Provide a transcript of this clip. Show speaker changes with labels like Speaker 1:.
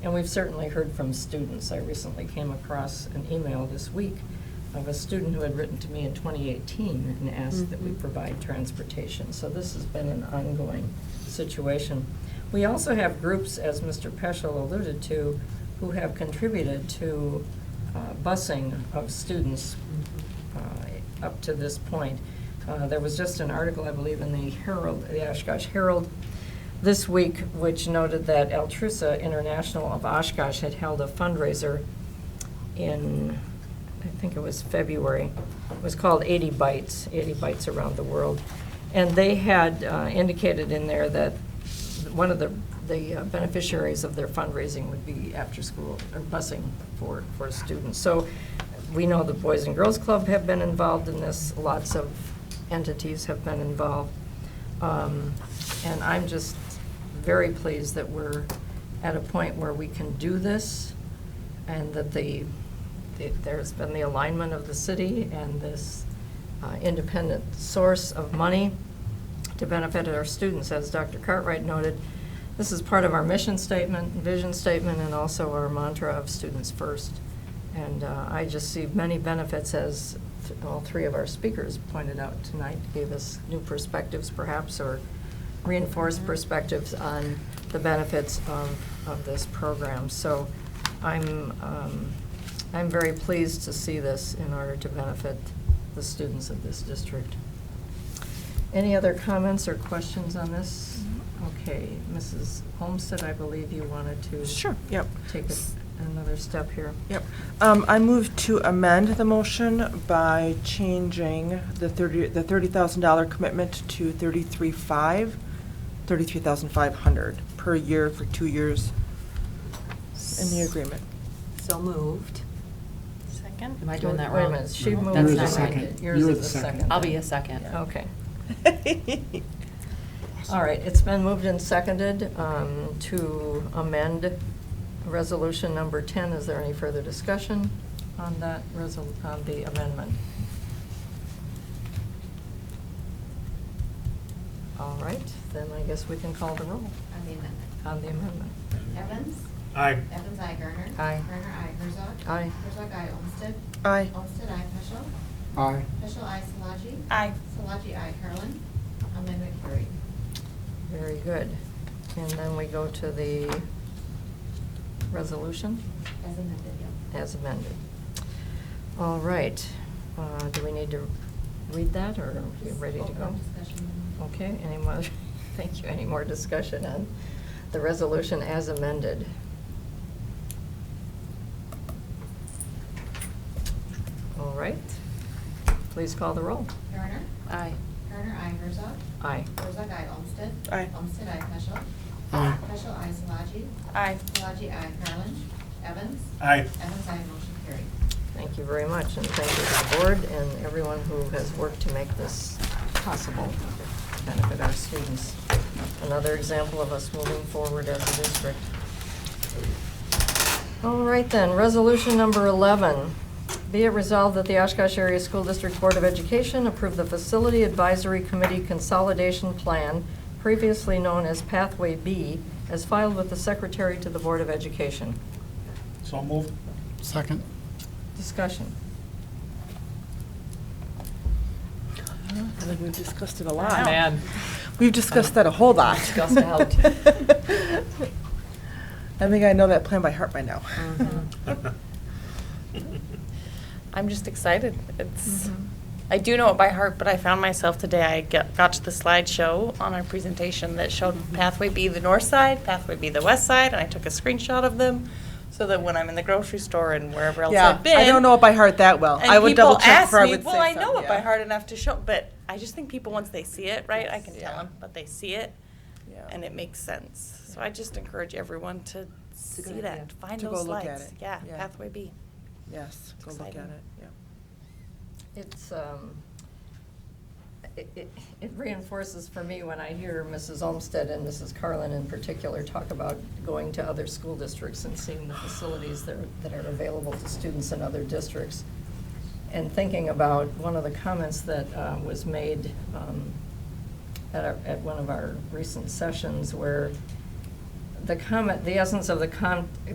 Speaker 1: And we've certainly heard from students. I recently came across an email this week of a student who had written to me in 2018 and asked that we
Speaker 2: Mhm.
Speaker 1: provide transportation. So this has been an ongoing situation. We also have groups, as Mr. Peschel alluded to, who have contributed to uh, busing of students uh, up to this point. Uh, There was just an article, I believe, in the Herald, the Oshkosh Herald this week, which noted that Altrusa International of Oshkosh had held a fundraiser in, I think it was February. It was called 80 Bites, 80 Bites Around the World. And they had uh, indicated in there that one of the the uh, beneficiaries of their fundraising would be after-school, or busing for, for students. So we know the Boys and Girls Club have been involved in this, lots of entities have been involved. Um, And I'm just very pleased that we're at a point where we can do this, and that the, that there's been the alignment of the city and this uh, independent source of money to benefit our students. As Dr. Cartwright noted, this is part of our mission statement, vision statement, and also our mantra of students first. And uh, I just see many benefits, as th- all three of our speakers pointed out tonight, gave us new perspectives perhaps, or reinforced perspectives on the benefits of, of this program. So I'm, um, I'm very pleased to see this in order to benefit the students of this district. Any other comments or questions on this? Okay, Mrs. Homestead, I believe you wanted to.
Speaker 2: Sure,
Speaker 3: yep.
Speaker 1: Take us another step here.
Speaker 3: Yep. Um, I move to amend the motion by changing the thirty, the thirty thousand dollar commitment to thirty-three five, thirty-three thousand five hundred per year for two years in the agreement.
Speaker 4: So moved.
Speaker 5: Second?
Speaker 4: Am I doing that
Speaker 1: Wait a
Speaker 4: wrong?
Speaker 1: minute, she
Speaker 4: No,
Speaker 1: moved.
Speaker 4: that's
Speaker 1: and I
Speaker 4: not right.
Speaker 1: did.
Speaker 6: second.
Speaker 1: Yours
Speaker 6: You were
Speaker 1: is
Speaker 6: the
Speaker 1: the
Speaker 6: second.
Speaker 1: second.
Speaker 4: I'll be a second.
Speaker 1: Okay. All right, it's been moved and seconded um, to amend Resolution Number 10. Is there any further discussion on that, resol- on the amendment? All right, then I guess we can call the roll
Speaker 7: On the amendment.
Speaker 1: on the amendment.
Speaker 7: Evans?
Speaker 6: Aye.
Speaker 7: Evans, I. Garner?
Speaker 1: Aye.
Speaker 7: Garner, I. Herzog?
Speaker 1: Aye.
Speaker 7: Herzog, I. Olmsted?
Speaker 3: Aye.
Speaker 7: Olmsted, I. Peschel?
Speaker 6: Aye.
Speaker 7: Peschel, I. Solaji?
Speaker 5: Aye.
Speaker 7: Solaji, I. Harlan? Amendment carried.
Speaker 1: Very good. And then we go to the resolution
Speaker 7: As amended, yep.
Speaker 1: as amended. All right, uh, do we need to read that, or are we ready to
Speaker 7: Open
Speaker 1: go?
Speaker 7: Discussion.
Speaker 1: Okay, any more, thank you, any more discussion on the resolution as amended? All right, please call the roll.
Speaker 7: Garner?
Speaker 4: Aye.
Speaker 7: Garner, I. Herzog?
Speaker 1: Aye.
Speaker 7: Herzog, I. Olmsted?
Speaker 3: Aye.
Speaker 7: Olmsted, I. Peschel?
Speaker 6: Aye.
Speaker 7: Peschel, I. Solaji?
Speaker 5: Aye.
Speaker 7: Solaji, I. Harlan? Evans?
Speaker 6: Aye.
Speaker 7: Evans, I. Motion carried.
Speaker 1: Thank you very much, and thank you to the board and everyone who has worked to make this possible, to benefit our students. Another example of us moving forward as a district. All right then, resolution number 11. Be it resolved that the Oshkosh Area School District Board of Education approve the Facility Advisory Committee Consolidation Plan, previously known as Pathway B, as filed with the Secretary to the Board of Education.
Speaker 6: So moved. Second.
Speaker 1: Discussion.
Speaker 3: I think we've discussed it a
Speaker 5: I
Speaker 4: Oh.
Speaker 3: lot.
Speaker 5: know. Man.
Speaker 3: We've discussed that a whole lot.
Speaker 1: Discussed a lot.
Speaker 3: I think I know that plan by heart by now.
Speaker 1: Mm-hmm.
Speaker 5: I'm just excited. It's,
Speaker 3: Mm-hmm.
Speaker 5: I do know it by heart, but I found myself today, I get- got to the slideshow on our presentation that showed
Speaker 3: Mm-hmm.
Speaker 5: pathway B, the north side, pathway B, the west side, and I took a screenshot of them so that when I'm in the grocery store and wherever else
Speaker 3: Yeah,
Speaker 5: I've been.
Speaker 3: I don't know it by heart that well.
Speaker 5: And
Speaker 3: I would
Speaker 5: people
Speaker 3: double check
Speaker 5: ask
Speaker 3: before I
Speaker 5: me,
Speaker 3: would say
Speaker 5: well, I know
Speaker 3: something,
Speaker 5: it by
Speaker 3: yeah.
Speaker 5: heart enough to show, but I just think people once they see it, right? I can tell
Speaker 3: Yeah.
Speaker 5: them, but they see it,
Speaker 3: Yeah.
Speaker 5: and it makes sense. So I just encourage everyone to see
Speaker 4: go-
Speaker 5: that,
Speaker 4: yeah.
Speaker 5: find
Speaker 3: To go
Speaker 5: those
Speaker 3: look at
Speaker 5: lights.
Speaker 3: it.
Speaker 5: Yeah,
Speaker 3: Yeah.
Speaker 5: pathway B.
Speaker 3: Yes,
Speaker 5: It's
Speaker 3: go look at
Speaker 5: exciting.
Speaker 3: it, yeah.
Speaker 1: It's, um, it- it it reinforces for me when I hear Mrs. Olmsted and Mrs. Carlin in particular talk about going to other school districts and seeing the facilities that are- that are available to students in other districts. And thinking about one of the comments that uh, was made um, at our- at one of our recent sessions where the comment, the essence of the con,